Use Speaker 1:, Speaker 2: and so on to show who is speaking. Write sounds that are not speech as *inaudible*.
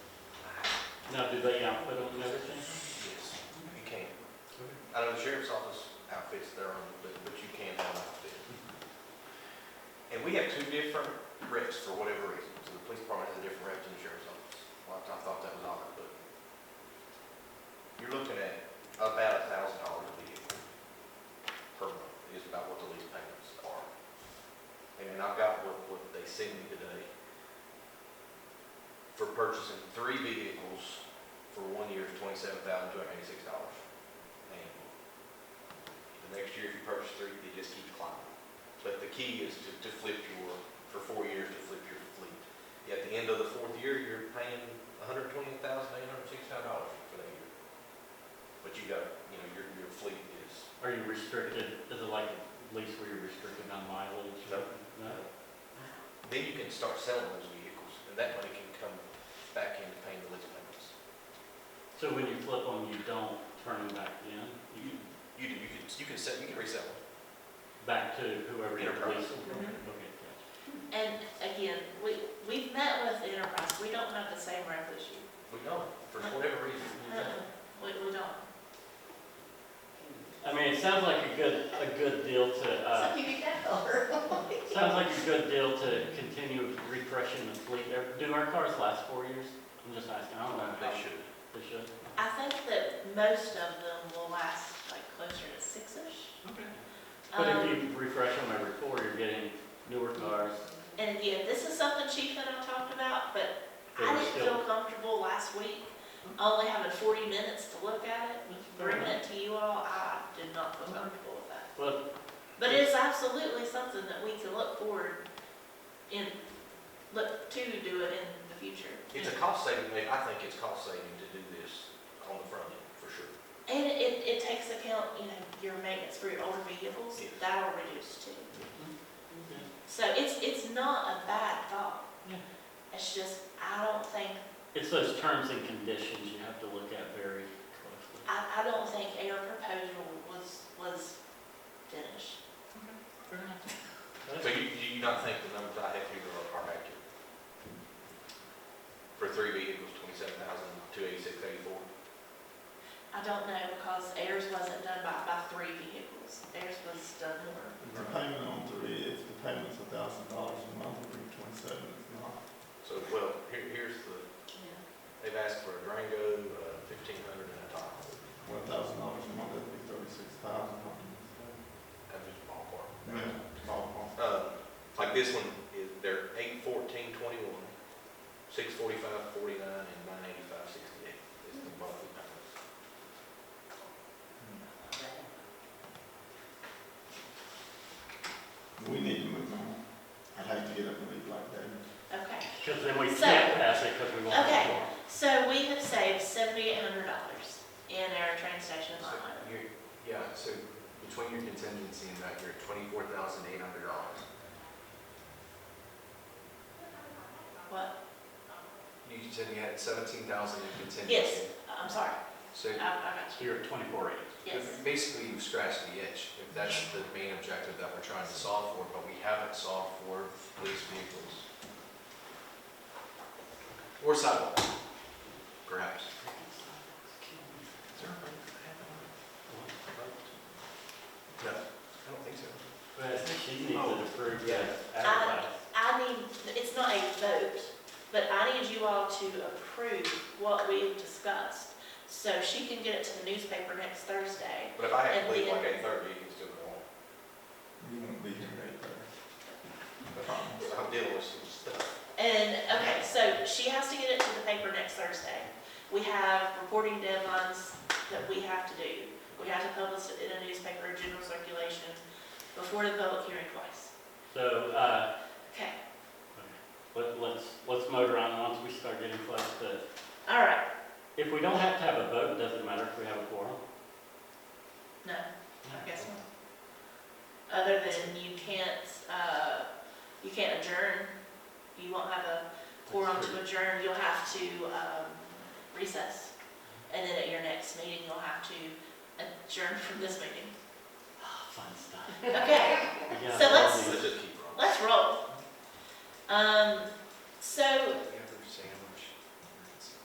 Speaker 1: Now, do they output on everything?
Speaker 2: Yes, you can. I know the sheriff's office outfits their own, but, but you can have an outfit. And we have two different reps for whatever reason, so the police department has a different rep than the sheriff's office. Well, I thought that was odd, but you're looking at about a thousand dollars a vehicle per month is about what the lease payments are. And I've got what, what they sent me today for purchasing three vehicles for one year is twenty-seven thousand two hundred eighty-six dollars annual. The next year, if you purchase three, it just keeps climbing. But the key is to, to flip your, for four years, to flip your fleet. At the end of the fourth year, you're paying hundred twenty thousand eight hundred sixty-nine dollars for that year. But you got, you know, your, your fleet is,
Speaker 1: Are you restricted, is it like lease where you're restricted on mileage?
Speaker 2: No.
Speaker 1: No?
Speaker 2: then you can start selling those vehicles, and that money can come back into paying the lease payments.
Speaker 1: So when you flip them, you don't turn them back in? You
Speaker 2: You, do- you can, you can sell, you can resell them.
Speaker 1: back to whoever you're
Speaker 2: Enterprise.
Speaker 1: leasing?
Speaker 3: Mhm.
Speaker 1: Okay,
Speaker 3: And again, we, we've met with Enterprise, we don't have the same rep as you.
Speaker 2: We don't, for whatever reason.
Speaker 3: Uh-uh,
Speaker 1: Mm-hmm.
Speaker 3: We, we don't.
Speaker 1: gotcha. I mean, it sounds like a good, a good deal to, uh,
Speaker 3: you get over.
Speaker 1: sounds like a good deal to continue refreshing the fleet. Are- Do our cars last four years? I'm just asking, I don't know. how-
Speaker 2: They should.
Speaker 1: They should?
Speaker 3: I think that most of them will last like closer to six-ish.
Speaker 1: Okay. But if
Speaker 3: Um,
Speaker 1: you refresh them every four, you're getting newer cars.
Speaker 3: And again, this is something Chief and I talked about, but
Speaker 1: They were
Speaker 3: I didn't
Speaker 1: still-
Speaker 3: feel comfortable last week, only having forty minutes to look at it. Bringing it to you all, I did not feel comfortable with that.
Speaker 1: Well,
Speaker 3: But it is absolutely something that we can look forward in, look to do it in the future.
Speaker 2: It's a cost saving, move. I think it's cost saving to do this on the front end, for sure.
Speaker 3: And it, it takes account, you know, your maintenance for your older vehicles,
Speaker 2: Yes.
Speaker 3: that'll reduce too.
Speaker 1: okay.
Speaker 3: So it's, it's not a bad thought.
Speaker 1: Yeah.
Speaker 3: It's just, I don't think,
Speaker 1: it's those terms and conditions you have to look at very closely.
Speaker 3: I, I don't think our proposal was, was finished.
Speaker 1: Fair enough.
Speaker 2: So you, do you not think the numbers I have here are are accurate? For three vehicles, twenty-seven thousand, two eighty-six, eighty-four?
Speaker 3: I don't know, because ours wasn't done by, by three vehicles. Ours was done more.
Speaker 4: If the payment on three, if the payment's a thousand dollars a month, it'd be twenty-seven, it's not.
Speaker 2: So, well, here, here's the, they've asked for a Durango, uh, fifteen hundred and a Tahoe.
Speaker 4: One thousand dollars a month, that'd be thirty-six thousand.
Speaker 2: That's just ballpark.
Speaker 4: Yeah, ballpark.
Speaker 2: Uh, like this one, is they're eight fourteen twenty-one, six forty-five forty-nine, and nine eighty-five sixty-eight is the monthly payments.
Speaker 4: We need to move on. I'd hate to get up and leave like that.
Speaker 3: Okay,
Speaker 1: Because then we
Speaker 3: So-
Speaker 1: can't pass it because we won't have
Speaker 3: Okay.
Speaker 1: more.
Speaker 3: so we have saved seventy-eight hundred dollars in our train station
Speaker 5: So
Speaker 3: line item.
Speaker 5: you're, yeah, so between your contingency and that, you're twenty-four thousand eight hundred dollars.
Speaker 3: What,
Speaker 5: You said you had seventeen thousand in
Speaker 3: yes,
Speaker 5: contingency.
Speaker 3: I'm sorry,
Speaker 5: So
Speaker 3: I, I got
Speaker 1: So you're at twenty-four eight.
Speaker 3: you, yes.
Speaker 5: basically, you've scratched the itch, if that's the main objective that we're trying to solve for, but we haven't solved for police vehicles. Or sidewalks, perhaps. No, I don't think so.
Speaker 1: But I think she needs
Speaker 5: Oh,
Speaker 1: to approve
Speaker 5: yeah.
Speaker 1: that advertise.
Speaker 3: I need, it's not a vote, but I need you all to approve what we've discussed, so she can get it to the newspaper next Thursday.
Speaker 2: But if I have
Speaker 3: And
Speaker 2: to leave
Speaker 3: then-
Speaker 2: like eight thirty, you can still go on.
Speaker 4: We won't be here at eight um, thirty.
Speaker 2: So I'm dealing with some stuff.
Speaker 3: And, okay, so she has to get it to the paper next Thursday. We have reporting deadlines that we have to do. We have to publish it in a newspaper, general circulation, before the public hearing twice.
Speaker 1: So, uh,
Speaker 3: Okay,
Speaker 1: let, let's, let's motor on once we start getting close to,
Speaker 3: all right,
Speaker 1: if we don't have to have a vote, it doesn't matter if we have a quorum.
Speaker 3: no, I guess not. Other than you can't, uh, you can't adjourn, you won't have a quorum to adjourn, you'll have to um, recess. And then at your next meeting, you'll have to adjourn from this meeting.
Speaker 1: Fun Ah, stuff.
Speaker 3: *laughs* Okay,
Speaker 1: We got
Speaker 3: So
Speaker 1: all
Speaker 3: let's-
Speaker 2: Let's
Speaker 1: these-
Speaker 2: just keep rolling.
Speaker 3: let's roll. Um, So
Speaker 5: Yeah,